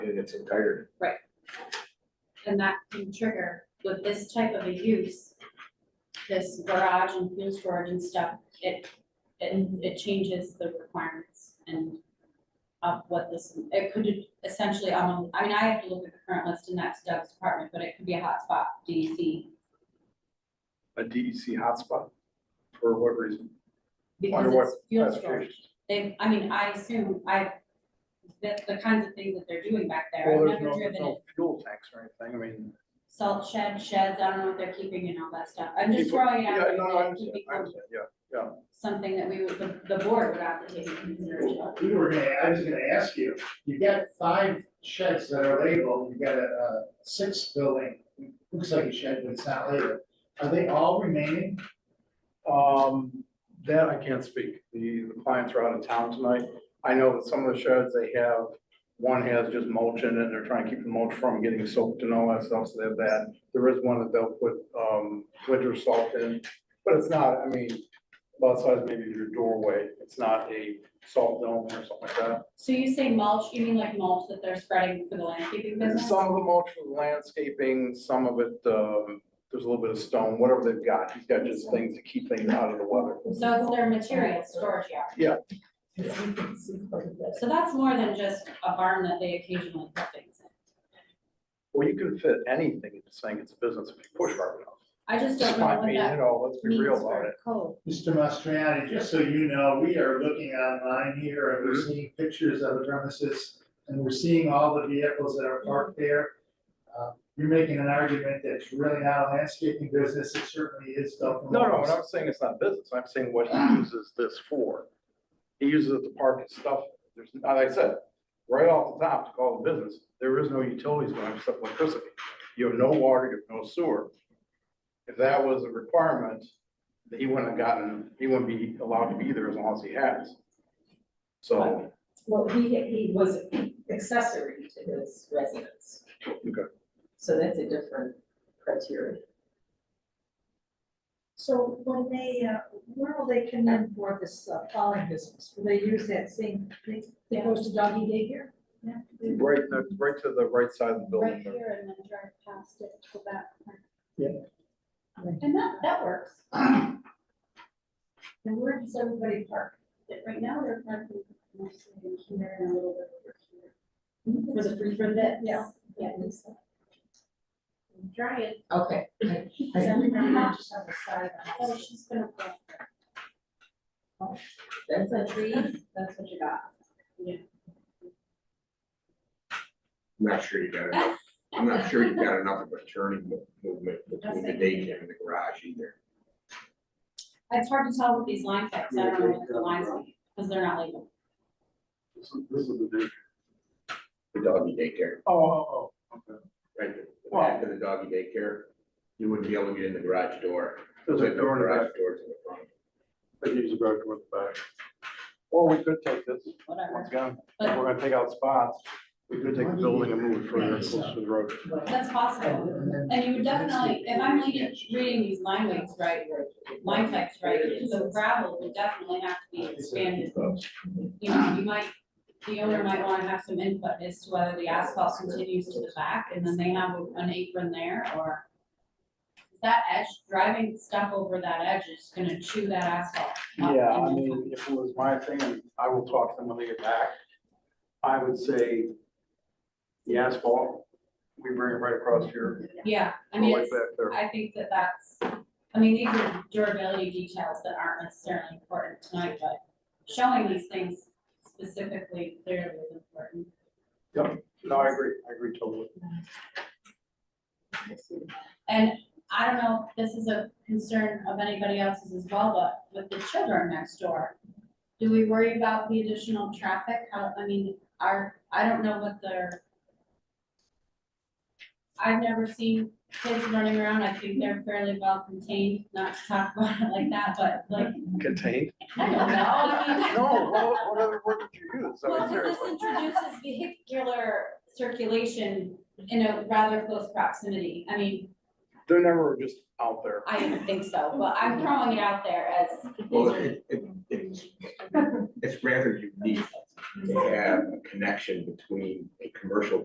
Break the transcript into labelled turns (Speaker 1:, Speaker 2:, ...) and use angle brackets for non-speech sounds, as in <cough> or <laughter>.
Speaker 1: in its entirety.
Speaker 2: And that can trigger with this type of a use, this garage and fuel storage and stuff, it, it, it changes the requirements and of what this, it could essentially, um, I mean, I have to look at the current list and that's Doug's department, but it could be a hotspot E DEC.
Speaker 1: A DEC hotspot, for what reason? Wonder
Speaker 2: Because
Speaker 1: what
Speaker 2: it's fuel storage.
Speaker 1: classification?
Speaker 2: They, I mean, I assume, I, the, the kinds of things that they're doing back there,
Speaker 1: Well,
Speaker 2: I've
Speaker 1: there's
Speaker 2: never
Speaker 1: no,
Speaker 2: driven
Speaker 1: there's
Speaker 2: it.
Speaker 1: no fuel tanks or anything, I mean,
Speaker 2: Salt shed, sheds, I don't know what they're keeping and all that stuff. I'm just
Speaker 1: People-
Speaker 2: throwing it out.
Speaker 1: yeah,
Speaker 2: there
Speaker 1: no,
Speaker 2: that
Speaker 1: I
Speaker 2: it
Speaker 1: understand, I
Speaker 2: could become
Speaker 1: understand, yeah.
Speaker 2: something that we would, the, the board would have to take into consideration.
Speaker 3: We were gonna, I was gonna ask you, you got five sheds that are labeled, you got a, a sixth building, looks like a shed, but it's not labeled. Are they all remaining?
Speaker 1: Um, that I can't speak. The, the clients are out of town tonight. I know that some of the sheds they have, one has just mulch in it, and they're trying to keep the mulch from getting soaked and all that stuff, so they have that. There is one that they'll put, um, winter salt in, but it's not, I mean, about the size maybe of your doorway. It's not a salt dome or something like that.
Speaker 2: So you say mulch, you mean like mulch that they're spreading for the landscaping
Speaker 1: And
Speaker 2: business?
Speaker 1: some of the mulch was landscaping, some of it, um, there's a little bit of stone, whatever they've got. He's got just things to keep things out of the weather.
Speaker 2: So it's their material storage yard. So that's more than just a barn that they occasionally put things in.
Speaker 1: Well, you can fit anything into saying it's a business if you push hard enough.
Speaker 2: I just don't know
Speaker 1: I
Speaker 2: what
Speaker 1: mean, you
Speaker 2: that
Speaker 1: know, let's be
Speaker 2: means
Speaker 1: real about
Speaker 2: for
Speaker 1: it.
Speaker 2: code.
Speaker 3: Mr. Mastriani, just so you know, we are looking online here and
Speaker 1: Mm-hmm.
Speaker 3: we're seeing pictures of the premises and we're seeing all the vehicles that are parked there. Uh, You're making an argument that's really not a landscaping business, it certainly is though. from
Speaker 1: No, no,
Speaker 3: what
Speaker 1: what
Speaker 3: I'm
Speaker 1: I'm saying it's not business, I'm saying what he uses this for. He uses it to park his stuff, there's, like I said, right off the top to call it business, there is no utilities going except electricity. You have no water, you have no sewer. If that was a requirement, then he wouldn't have gotten, he wouldn't be allowed to be there as long as he has. So,
Speaker 4: Well, he, he was accessory to his residence.
Speaker 1: Okay.
Speaker 4: So that's a different criteria.
Speaker 5: So when they, uh, where will they come in for this uh, following business? Will they use that same, thing that goes to doggy daycare?
Speaker 1: right, next- right to the right side of the
Speaker 2: Right
Speaker 1: building.
Speaker 2: here and then drive past it, go back.
Speaker 3: Yeah.
Speaker 2: And that, that works.
Speaker 5: And where does everybody park?
Speaker 2: But Right now, they're parking mostly in here and a little bit over here. For the free for that?
Speaker 5: Yeah.
Speaker 2: Yeah. I'm Trying.
Speaker 4: Okay. I-
Speaker 5: Everyone just on the side.
Speaker 2: Oh, she's gonna go.
Speaker 4: That's a tree, that's what you got.
Speaker 6: I'm not sure you got enough, I'm not sure you got enough of a turning mo- movement between the daycare and the garage either.
Speaker 2: It's hard to tell with these line types. I don't know what the lines are, because they're not labeled.
Speaker 6: The doggy daycare,
Speaker 1: Oh, oh, oh, okay.
Speaker 6: right, the- the back of the doggy daycare, you wouldn't be able to get in the garage door.
Speaker 1: There's a door in the back.
Speaker 6: Garage doors in the front.
Speaker 1: They use the garage door at the back. Or we could take this,
Speaker 2: whatever.
Speaker 1: once again, if
Speaker 2: But
Speaker 1: we're gonna take out spots, we could take the building and move it further closer to the road.
Speaker 2: that's possible. And you would definitely, if I'm reading, reading these line weights right, line types right, the gravel would definitely have to be expanded. You know, you might, the owner might want to have some input as to whether the asphalt continues to the back and then they have an apron there or that edge, driving stuff over that edge is gonna chew that asphalt. up
Speaker 1: Yeah, I
Speaker 2: and then
Speaker 1: mean, if it was my thing, and I will talk to them when they get back, I would say the asphalt, we bring it right across here,
Speaker 2: Yeah, I mean,
Speaker 1: right
Speaker 2: it's,
Speaker 1: back there.
Speaker 2: I think that that's, I mean, these are durability details that aren't necessarily important tonight, but showing these things specifically clearly is important.
Speaker 1: No, I agree, I agree totally.
Speaker 2: And I don't know if this is a concern of anybody else's as well, but with the children next door, do we worry about the additional traffic? How, I mean, are, I don't know what their. I've never seen kids running around. I think they're fairly well contained, not to talk about it like that, but like,
Speaker 1: Contained?
Speaker 2: I don't know. I
Speaker 1: <laughs>
Speaker 2: mean-
Speaker 1: No, what, what other word would you use? I mean,
Speaker 2: Well, because this
Speaker 1: seriously.
Speaker 2: introduces vehicular circulation in a rather close proximity. I mean,
Speaker 1: They're never just out there.
Speaker 2: I don't think so, but I'm throwing it out there as.
Speaker 6: Well, it, it, it's, it's rather unique to have a connection between a commercial